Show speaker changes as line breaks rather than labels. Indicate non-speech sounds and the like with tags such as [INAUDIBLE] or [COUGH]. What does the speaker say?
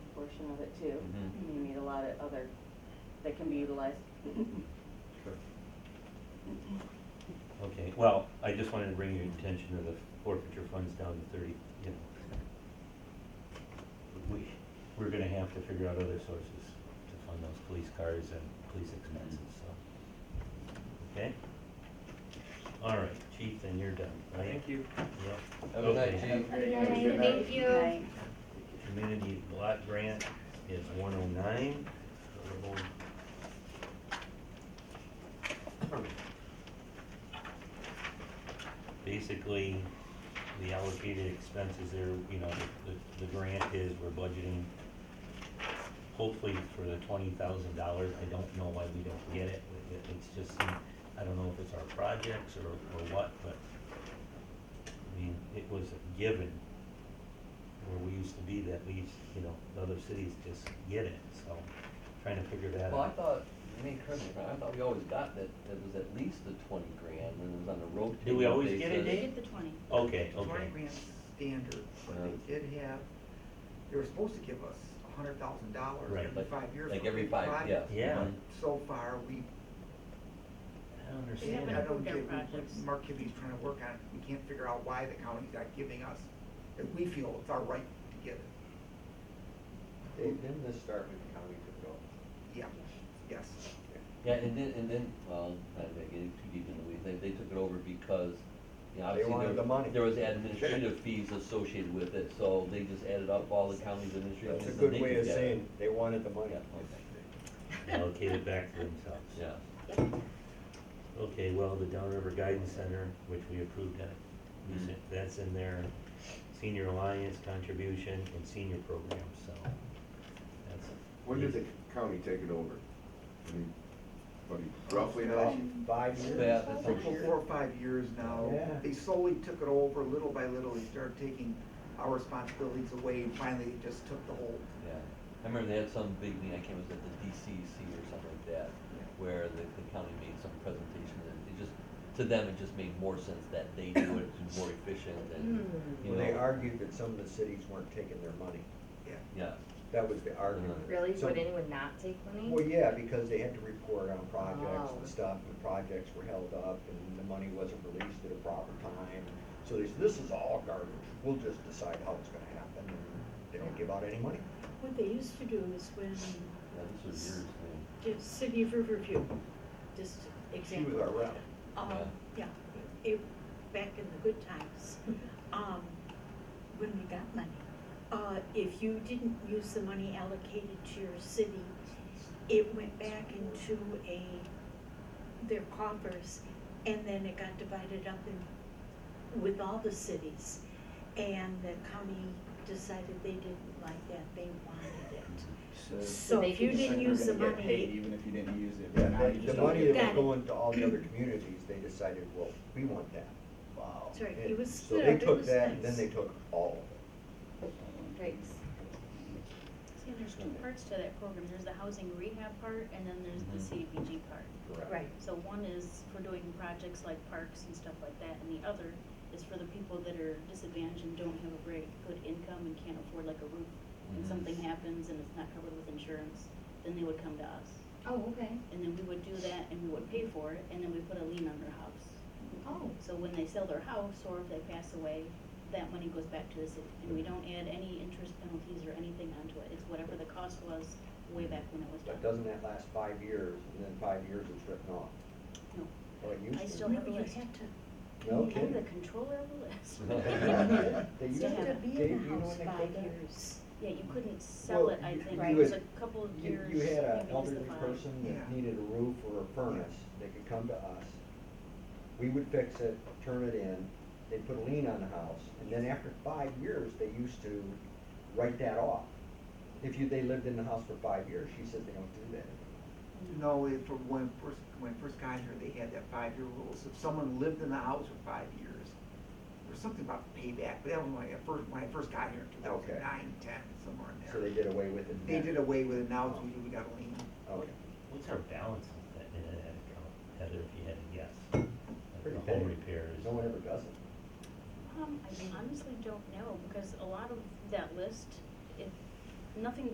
it too.
Mhm.
You need a lot of other, that can be utilized.
Okay, well, I just wanted to bring your attention to the forfeiture funds down to thirty, you know. We, we're gonna have to figure out other sources to fund those police cars and police expenses, so. Okay? All right, chief, then you're done, right?
Thank you.
Yep.
Have a nice
Okay.
day.
Good night. Thank you.
Right.
Community lot grant is one oh nine. Basically, the allocated expenses there, you know, the, the grant is, we're budgeting hopefully for the twenty thousand dollars. I don't know why we don't get it. It- It's just, some- I don't know if it's our projects or, or what, but I mean, it was a given where we used to be that we, you know, the other cities just get it, so trying to figure that out.
Well, I thought, you may correct me, if I'm wrong, I thought we always got that, that was at least the twenty grand when it was on the road.
Do we always get it,
You
Dave?
get the twenty.
Okay,
Twenty
okay.
grand standard, but they
Yeah.
did have, they were supposed to give us a hundred thousand dollars
Right,
every
Like,
five years.
like
for
every
big
five, yeah.
projects.
Yeah.
Mhm.
So far, we,
I don't
They
understand
haven't
I
that.
know
approved our
Jay- we-
projects.
Mark Kibbe's trying to work on it, we can't figure out why the county's not giving us, if we feel it's our right to give it.
Dave, didn't this start when the county took over?
Yeah, yes.
Yeah, and then, and then, well, I don't get too deep into the weeds, they, they took it over because, you know,
They
obviously there,
wanted the money.
there was administrative fees associated with it, so they just added up all the county's administrative fees. and
That's a good
they
way
could
of
get it.
saying, they wanted the money.
Yeah, okay,
Allocate it back to themselves.
yeah.
Okay, well, the Downriver Guidance Center, which we approved that, we
Mhm.
said- that's in their senior alliance contribution and senior program, so that's.
When did the county take it over? Anybody roughly
Gosh,
know?
Five
Yeah,
years.
that's
For
what
for four or five years now,
Yeah.
they slowly took it over, little by little, they started taking our responsibilities away, and finally, they just took the whole
Yeah, I remember they had some big meeting, I can't remember, it was at the DCC or something like that, where the, the county made some presentation, and it just, to them, it just made more sense that they do it, it's more efficient, and, you
Well,
know.
they argued that some of the cities weren't taking their money.
Yeah.
Yeah,
That was the argument.
Uh-huh.
Really?
So-
Would anyone not take money?
Well, yeah, because they had to report on projects
Oh.
and stuff, and projects were held up, and the money wasn't released at a proper time. So they said, this is all garbage, we'll just decide how it's gonna happen, and they don't give out any money.
What they used to do is when
yeah, this was years, ago.
the city of Riverview, just
She was
example.
our rep.
Um, yeah, it, back in the good times, um, when we got money. Uh, if you didn't use the money allocated to your city, it went back into a, their coffers, and then it got divided up in, with all the cities. And the county decided they didn't like that, they wanted it. So if you didn't use the money,
Even if you didn't use it,
Yeah,
but now you
the-
just
The
don't
money
get
that was
Got it.
going to all the other communities, they decided, well, we want that. Wow.
That's right.
And
It was
So they
split up. It
took
was
that, and then
nice.
they took all of it.
Yikes.
See,
there's two parts to that program, there's the housing rehab part, and then there's
Mhm.
Mm-hmm.
the CDBG part.
right,
So one is for doing projects like parks and stuff like that, and the other is for the people that are disadvantaged and don't have a very good income and can't afford like a roof. And
Mm-hmm.
Mhm.
something happens and it's not covered with insurance, then they would come to us.
oh, okay,
And then we would do that and we would pay for it, and then we put a lien on their house.
oh.
So when they sell their house or if they pass away, that money goes back to the city. And we don't add any interest penalties or anything onto it. It's whatever the cost was way back when it was done.
But doesn't that last five years, and then five years it's written off?
No.
Well, it
I
used
still
to.
have a
You
list.
had to
No
I'm the
kidding.
controller of the list.
[LAUGHS] They used
You have to be
Dave,
in
you
the
know
house
when they
five
quit that?
years.
Yeah, you couldn't sell
Well,
it, I
you-
think.
Right.
It was a couple of
You,
years.
you had
maybe
an
it was the
elderly
five.
person that
Yeah.
needed a roof or a furnace, they could come to us. We would fix it, turn it in, they'd put a lien on the house, and then after five years, they used to write that off. If you, they lived in the house for five years, she said they don't do that anymore.
No, it- for when first, when I first got here, they had that five-year rule, so if someone lived in the house for five years, there's something about payback, but that was when I first, when I first got here in two thousand
Okay.
nine, ten, somewhere in there.
So they did away with it.
They
then.
did away with it, now it's, we- we got a lien.
Okay.
What's our balance of that, in that account, Heather, if you had to guess? Like
Pretty
The home
big.
repairs.
No one ever does it.
Um, I honestly don't know, because a lot of that list, it, nothing